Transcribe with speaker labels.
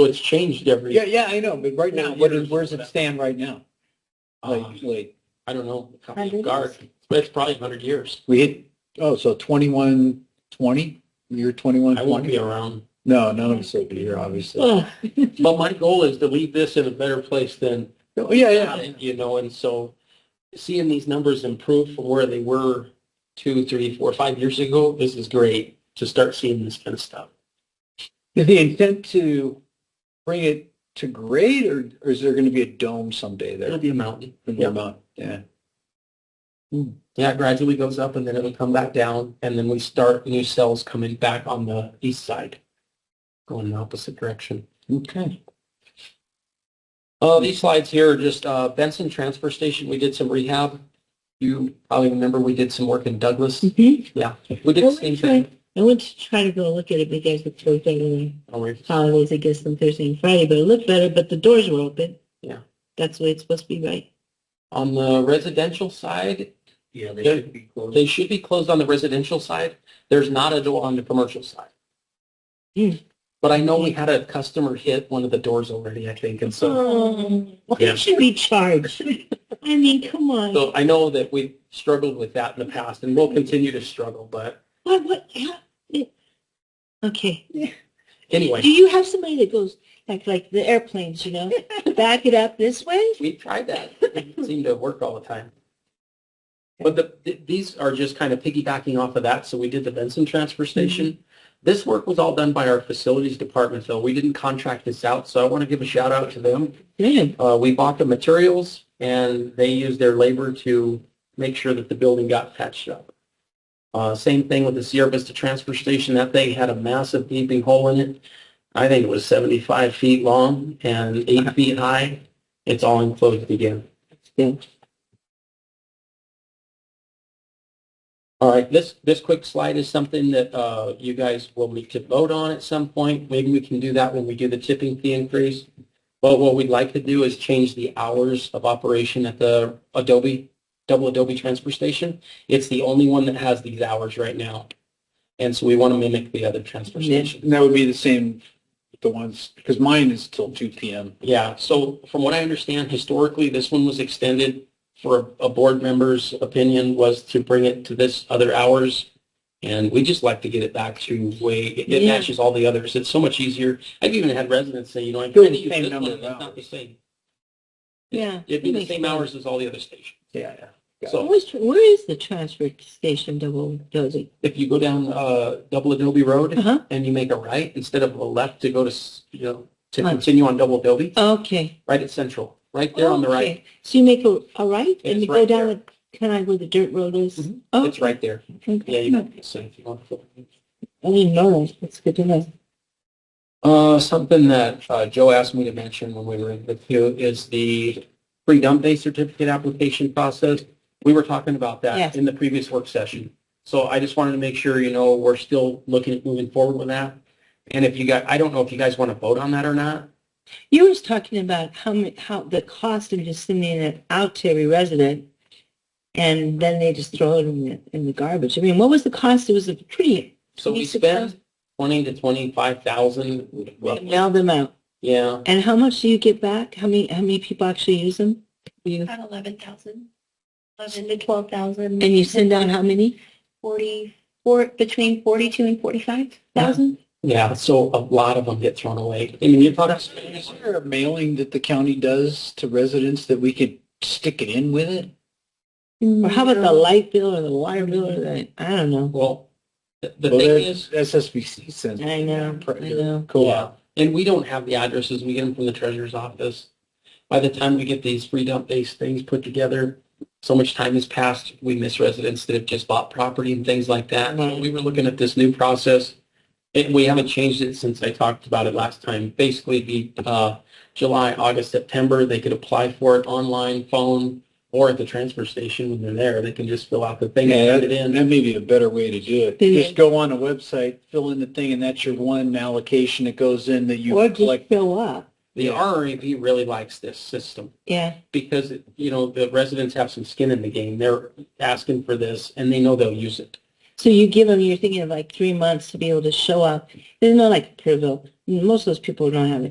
Speaker 1: Well, it's changed every,
Speaker 2: Yeah, yeah, I know, but right now,
Speaker 1: Yeah,
Speaker 2: what
Speaker 1: it
Speaker 2: is,
Speaker 1: is.
Speaker 2: where's it stand right now?
Speaker 1: um,
Speaker 2: Like, like,
Speaker 1: I don't know, how many
Speaker 3: 100
Speaker 1: guard, but it's probably 100 years.
Speaker 2: we hit, oh, so twenty-one, twenty, year twenty-one,
Speaker 1: I won't be
Speaker 2: twenty?
Speaker 1: around.
Speaker 2: No, none of us will be here, obviously.
Speaker 1: But my goal is to leave this in a better place than,
Speaker 2: Oh, yeah, yeah.
Speaker 1: you know, and so seeing these numbers improve from where they were two, three, four, five years ago, this is great to start seeing this kind of stuff.
Speaker 2: Is the intent to bring it to grade or, or is there going to be a dome someday
Speaker 1: It'll
Speaker 2: there?
Speaker 1: be a mountain.
Speaker 2: in
Speaker 1: Yeah.
Speaker 2: Vermont? Yeah.
Speaker 1: Yeah, it gradually goes up and then it'll come back down and then we start new cells coming back on the east side, going in the opposite direction.
Speaker 2: Okay.
Speaker 1: Uh, these slides here are just, uh, Benson Transfer Station, we did some rehab. You probably remember we did some work in Douglas.
Speaker 3: Mhm.
Speaker 1: We did the same thing.
Speaker 3: I went to try to go look at it because it's so big and
Speaker 1: Oh, we-
Speaker 3: holidays, I guess, on Thursday and Friday, but it looked better, but the doors were open.
Speaker 1: Yeah.
Speaker 3: That's the way it's supposed to be, right?
Speaker 1: On the residential side,
Speaker 2: Yeah,
Speaker 1: they should
Speaker 2: be close.
Speaker 1: they should be closed on the residential side. There's not a door on the commercial side.
Speaker 3: Hmm.
Speaker 1: But I know we had a customer hit one of the doors already, I think, and so.
Speaker 3: Oh,
Speaker 1: Yeah.
Speaker 3: why should we charge? I mean, come on.
Speaker 1: So I know that we've struggled with that in the past and we'll continue to struggle, but
Speaker 3: What, what, how- it- okay. Do
Speaker 1: anyway,
Speaker 3: you have somebody that goes, like, like the airplanes, you know, back it up this way?
Speaker 1: we tried that. It seemed to work all the time. But the, th- these are just kind of piggybacking off of that. So we did the Benson transfer station. This work was all done by our facilities department, though. We didn't contract this out. So I want to give a shout out to them.
Speaker 3: Good.
Speaker 1: Uh, we bought the materials and they used their labor to make sure that the building got patched up. Uh, same thing with the Sierra Vista Transfer Station. That thing had a massive gaping hole in it. I think it was 75 feet long and eight feet high. It's all enclosed again.
Speaker 3: good.
Speaker 1: All right, this, this quick slide is something that, uh, you guys will need to vote on at some point. Maybe we can do that when we do the tipping fee increase. But what we'd like to do is change the hours of operation at the Adobe, double Adobe transfer station. It's the only one that has these hours right now. And so we want to mimic the other transfer
Speaker 3: Yeah.
Speaker 1: station.
Speaker 2: And that would be the same, with the ones, because mine is till two PM.
Speaker 1: Yeah, so from what I understand, historically, this one was extended for a, a board member's opinion was to bring it to this other hours. And we just like to get it back to way, it it
Speaker 3: Yeah.
Speaker 1: matches all the others. It's so much easier. I've even had residents say, you know, I'm trying to
Speaker 2: Same
Speaker 1: use this one,
Speaker 2: number of
Speaker 1: and it's not
Speaker 2: hours.
Speaker 1: the same.
Speaker 3: Yeah.
Speaker 1: It'd be
Speaker 3: that
Speaker 1: the
Speaker 3: makes
Speaker 1: same
Speaker 3: sense.
Speaker 1: hours as all the other stations.
Speaker 2: Yeah, yeah. Got
Speaker 1: So
Speaker 3: Where's- Where is the transfer station double dozing?
Speaker 1: if you go down, uh, Double Adobe Road
Speaker 3: Uh-huh.
Speaker 1: and you make a right instead of a left to go to, s- you know, to
Speaker 3: Huh.
Speaker 1: continue on Double Adobe,
Speaker 3: Okay.
Speaker 1: right at Central, right there on the right.
Speaker 3: Okay. So you make a, a right
Speaker 1: It's
Speaker 3: and you
Speaker 1: right
Speaker 3: go down
Speaker 1: there.
Speaker 3: the, kind of where the dirt road is?
Speaker 1: Mhm.
Speaker 3: Oh,
Speaker 1: It's right there. Yeah,
Speaker 3: okay.
Speaker 1: you can say if you want to.
Speaker 3: I didn't know that. That's good to know.
Speaker 1: Uh, something that uh, Joe asked me to mention when we were in the queue is the free dump day certificate application process. We were talking about that
Speaker 3: Yes.
Speaker 1: in the previous work session. So I just wanted to make sure, you know, we're still looking at moving forward with that. And if you guys, I don't know if you guys want to vote on that or not.
Speaker 3: You were talking about how, mu- how the cost of just sending it out to every resident and then they just throw it in the, in the garbage. I mean, what was the cost? It was a pretty,
Speaker 1: So we
Speaker 3: 26,000.
Speaker 1: spent twenty to twenty-five thousand.
Speaker 3: mail them out.
Speaker 1: Yeah,
Speaker 3: And how much do you get back? How many, how many people actually use them? You-
Speaker 4: About eleven thousand, eleven to twelve thousand.
Speaker 3: And you send out how many?
Speaker 4: Forty, four, between forty-two and forty-five thousand?
Speaker 1: yeah. So a lot of them get thrown away. I mean, you're talking.
Speaker 2: Is there a mailing that the county does to residents that we could stick it in with it?
Speaker 3: Or how about the light bill or the water bill or the, I don't know.
Speaker 1: Well, the the
Speaker 2: Well,
Speaker 1: thing
Speaker 2: there's
Speaker 1: is.
Speaker 2: SSBC sends.
Speaker 3: I know, I know.
Speaker 2: Co-op.
Speaker 1: Yeah. And we don't have the addresses. We get them from the treasurer's office. By the time we get these free dump based things put together, so much time has passed. We miss residents that have just bought property and things like that. So
Speaker 3: Right.
Speaker 1: we were looking at this new process. And we haven't changed it since I talked about it last time. Basically, it'd be uh, July, August, September. They could apply for it online, phone, or at the transfer station when they're there. They can just fill out the thing and
Speaker 2: Yeah,
Speaker 1: send
Speaker 2: that
Speaker 1: it in.
Speaker 2: that may be a better way to do it.
Speaker 3: Yeah.
Speaker 2: Just go on a website, fill in the thing, and that's your one allocation that goes in that you
Speaker 3: Or just
Speaker 2: collect.
Speaker 3: fill up.
Speaker 1: The RRAP really likes this system.
Speaker 3: Yeah.
Speaker 1: because, you know, the residents have some skin in the game. They're asking for this and they know they'll use it.
Speaker 3: So you give them, you're thinking of like three months to be able to show up. There's no like Kerrville. Most of those people don't have it.